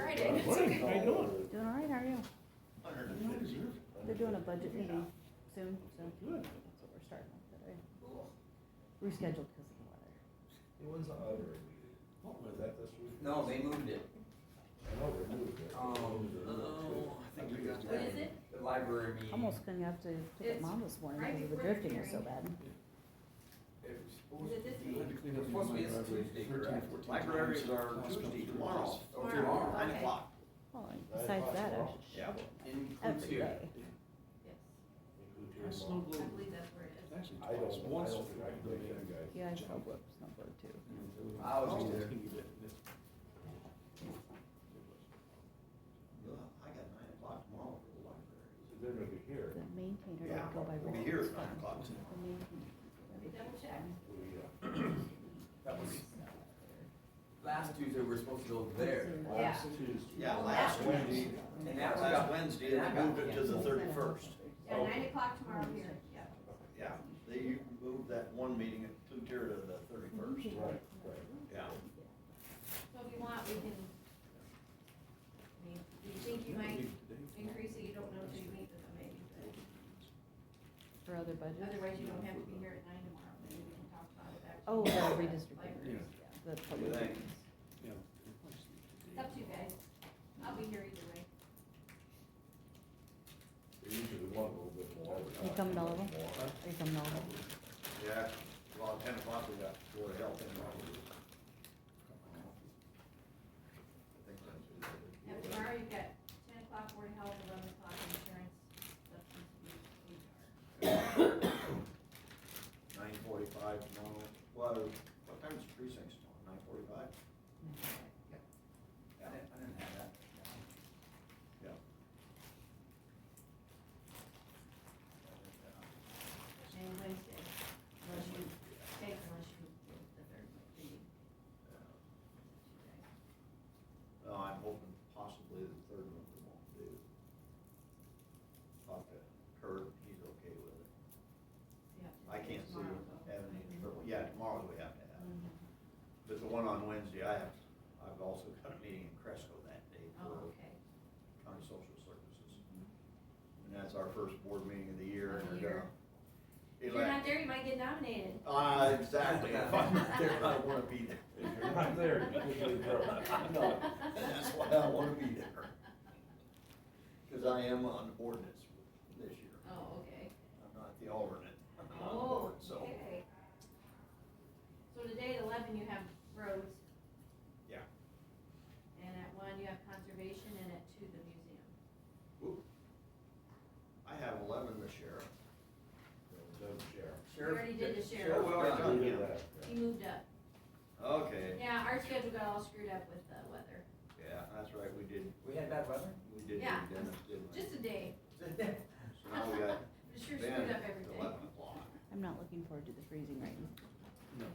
morning, how you doing? Doing all right, how are you? Hundred and fifty. They're doing a budget meeting soon, so Good. that's what we're starting with today. Rescheduled because of the weather. It was on Auburn. What Was was that? that this week? uh, No, they moved it. I know they moved it. Um, oh, I think we got that. What is it? The library meeting. Almost couldn't have to pick up It's mom this morning right because the before the drifting was so bad. It was supposed Is it this to be, week? it was supposed to be this Tuesday, correct? Libraries are Tuesday, tomorrow, or Tomorrow, tomorrow, nine okay. o'clock. Well, and Nine besides o'clock that, I tomorrow. should Yeah. In every Clutch here. day. Yes, I I I snow globe. believe that's where it It's is. actually don't, I twice, once. don't think I can make that guy. Yeah, I snowboard, snowboard I too. was It's there. gonna be bad. It's- I got nine o'clock tomorrow for the library. They're gonna be here. The maintainer Yeah, didn't go by we'll be roll. here at nine o'clock too. The main- We double checked. We, uh, That was, last Tuesday, we were supposed to go there. Last Yeah. Tuesday. Yeah, last Wednesday. And that last Wednesday, they moved it to the thirty-first. Yeah, nine o'clock tomorrow here, yeah. Yeah, they moved that one meeting at Clutier to the thirty-first. Right, right. Yeah. So if you want, we can, I mean, do you think you might increase it? You don't know till you meet with them maybe, but For other budgets? otherwise you don't have to be here at nine tomorrow. Maybe we can talk about it after. Oh, the redistributing. Libraries, yeah. The What do you public. think? Yeah. It's up to you guys. I'll be here either way. They usually want a little bit more. You coming over? Are you coming over? Yeah, about ten o'clock, we got Board of Health in. Now tomorrow you've got ten o'clock board of health, eleven o'clock insurance, substance abuse, Nine forty-five tomorrow, well, what time is precincts tomorrow, nine forty-five? I didn't, I didn't have that. Yeah. HR, and Wednesday, unless you take, unless you, the third meeting. No, I'm hoping possibly the third one we won't do. Talk to Kurt, he's okay with it. I can't see having Mm-hmm. any, but, yeah, tomorrow we have to have. it. But the one on Wednesday, I have, I've also got a meeting in Cresco that day Oh, for okay. county social services. And that's our first board meeting of the year, and uh, Of the we're year. gonna. If you're not there, you might get nominated. Uh, exactly, if I'm not there, I don't wanna be there. If you're not there, you usually grow. No, That's why I wanna be there. Cause I am on ordinance this year, Oh, okay. I'm not the alternate, I'm on the Oh, board, so. okay. So today at eleven you have roads. Yeah. And at one you have conservation and at two the museum. I have eleven this year. Don't share. We already did the Sheriff, sheriff. we already We done, did yeah. that. He moved up. Okay, Yeah, our schedule got all screwed up with the weather. yeah, that's right, we did, We had bad weather? we did do Yeah. Dennis, didn't we? Just a day. So now we got It sure Ben screwed up at everything. eleven o'clock. I'm not looking forward to the freezing rain. No.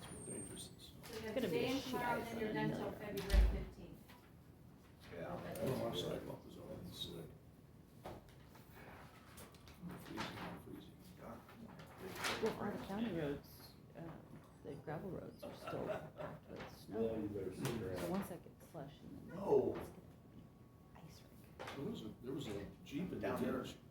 That's what dangerous is. So you have Gonna be today a and shit tomorrow, ice then you're on done till another. February fifteenth. Yeah. I don't want sidewalk is all that's sick. Freezing, freezing. Well, our county roads, uh, the gravel roads are still packed with Well, snow. you better sit around. So once that gets slush and then. No. Ice rink. There was a, there was a Jeep in the Down there. ditch uh,